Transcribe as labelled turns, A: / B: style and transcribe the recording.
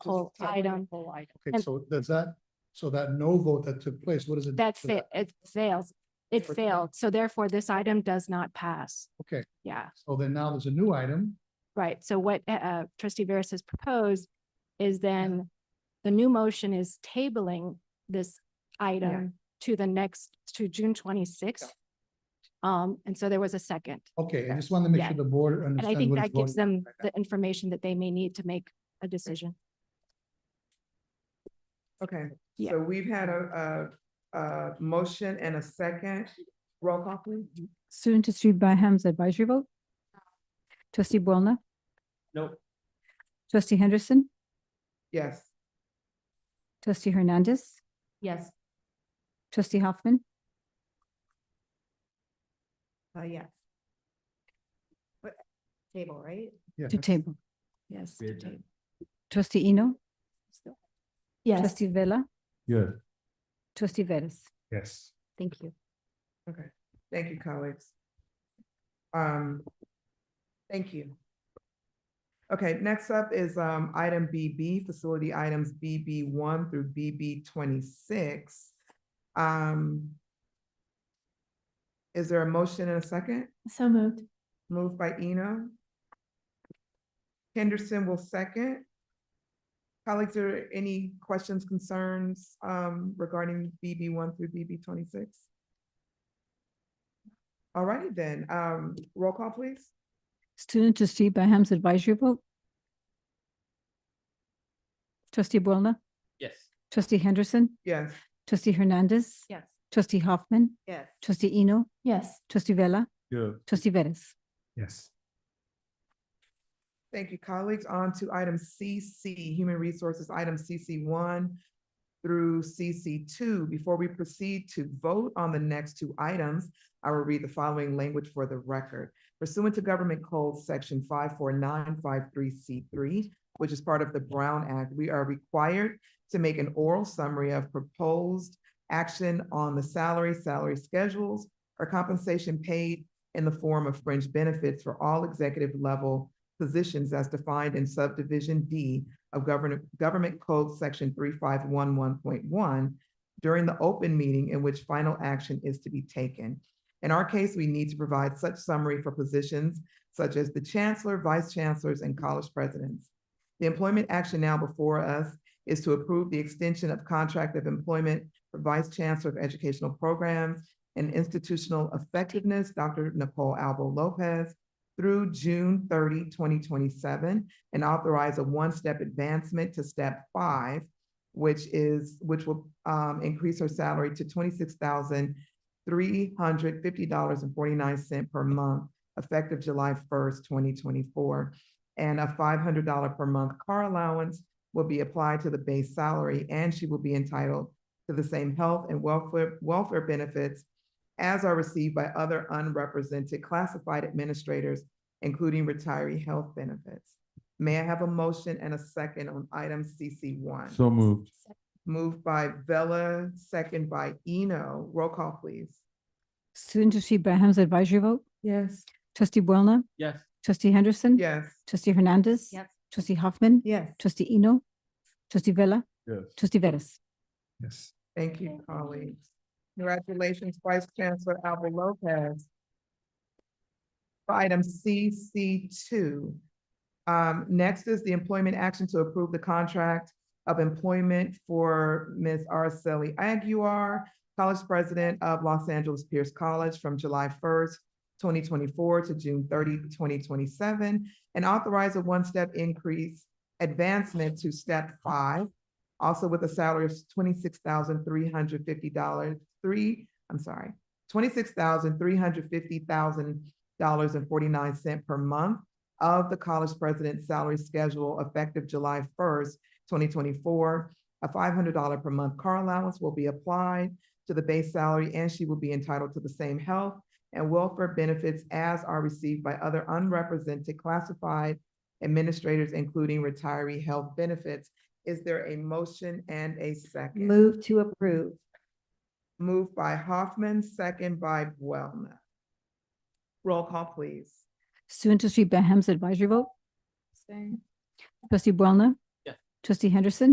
A: whole item.
B: Whole item.
C: Okay,
A: And-
C: so does that, so that no vote that took place, what does it? do
A: That's
C: to
A: it.
C: that?
A: It fails. It
C: Okay.
A: failed. So therefore, this item does not pass.
C: Okay,
A: Yeah,
C: so then now there's a new item.
A: right. So what uh, uh, trustee Veras has proposed is then the new motion is tabling this item to the next, to June twenty-sixth. Um, and so there was a second.
C: Okay, I just wanted to make sure
A: Yeah.
C: the board
A: And I
C: understands
A: think
C: what it's
A: that gives
C: voting.
A: them
C: right now.
A: the information that they may need to make a decision.
B: Okay,
A: Yeah.
B: so we've had a, a, a motion and a second. Roll call please.
D: Mm-hmm.
E: Student trustee Byham's advisory vote. Trustee Boulna,
F: Nope.
E: trustee Henderson,
B: Yes.
E: trustee Hernandez,
A: Yes.
E: trustee Hoffman,
D: Uh, yes. But table, right?
C: Yeah,
E: to
C: that's-
E: table.
A: Yes.
F: Great.
A: Dave.
E: Trustee Eno,
A: Yes.
E: trustee Vella,
C: Yeah.
E: trustee Veras.
C: Yes.
E: Thank you.
B: Okay, thank you, colleagues. Um, thank you. Okay, next up is um item BB, facility items BB one through BB twenty-six. Um. Is there a motion and a second?
D: So moved.
B: Moved by Eno. Henderson will second. Colleagues, are there any questions, concerns um, regarding BB one through BB twenty-six? All righty then, um, roll call, please.
E: Student trustee Byham's advisory vote. Trustee Boulna,
F: Yes.
E: trustee Henderson,
B: Yes,
E: trustee Hernandez,
D: Yes.
E: trustee Hoffman,
D: Yes.
E: trustee Eno,
D: Yes.
E: trustee Vella,
C: Yeah.
E: trustee Veras.
C: Yes.
B: thank you, colleagues. On to item CC, Human Resources, item CC one through CC two. Before we proceed to vote on the next two items, I will read the following language for the record. Pursuant to Government Code Section five four nine five three C three, which is part of the Brown Act, we are required to make an oral summary of proposed action on the salary, salary schedules, or compensation paid in the form of fringe benefits for all executive level positions as defined in subdivision D of Government, Government Code Section three five one one point one during the open meeting in which final action is to be taken. In our case, we need to provide such summary for positions such as the chancellor, vice chancellors, and college presidents. The employment action now before us is to approve the extension of contract of employment for vice chancellor of educational programs and institutional effectiveness, Dr. Nicole Albo Lopez, through June 30, 2027, and authorize a one-step advancement to step five, which is, which will um, increase her salary to twenty-six thousand three hundred fifty dollars and forty-nine cent per month, effective July first, twenty twenty-four. And a five hundred dollar per month car allowance will be applied to the base salary, and she will be entitled to the same health and welfare, welfare benefits as are received by other unrepresented classified administrators, including retiree health benefits. May I have a motion and a second on item CC one?
G: So moved.
B: Moved by Vella, second by Eno. Roll call, please.
E: Student trustee Byham's advisory vote.
D: Yes.
E: Trustee Boulna,
F: Yes.
E: trustee Henderson.
B: Yes,
E: Trustee Hernandez.
D: Yes.
E: Trustee Hoffman.
D: Yes.
E: Trustee Eno. Trustee Vella.
G: Yes.
E: Trustee Veras.
C: Yes.
B: thank you, colleagues. Congratulations, Vice Chancellor Alba Lopez. For Item CC two. Um, next is the employment action to approve the contract of employment for Ms. Araceli Aguirre, College President of Los Angeles Pierce College from July first, twenty twenty-four to June 30, 2027, and authorize a one-step increase advancement to step five, also with a salary of twenty-six thousand three hundred fifty dollars, three, I'm sorry, twenty-six thousand three hundred fifty thousand dollars and forty-nine cent per month of the college president's salary schedule effective July first, twenty twenty-four. A five hundred dollar per month car allowance will be applied to the base salary, and she will be entitled to the same health and welfare benefits as are received by other unrepresented classified administrators, including retiree health benefits. Is there a motion and a second?
D: Move to approve.
B: Moved by Hoffman, second by Boulna. Roll call, please.
E: Student trustee Byham's advisory vote. Trustee Boulna.
F: Yes.
E: Trustee Henderson.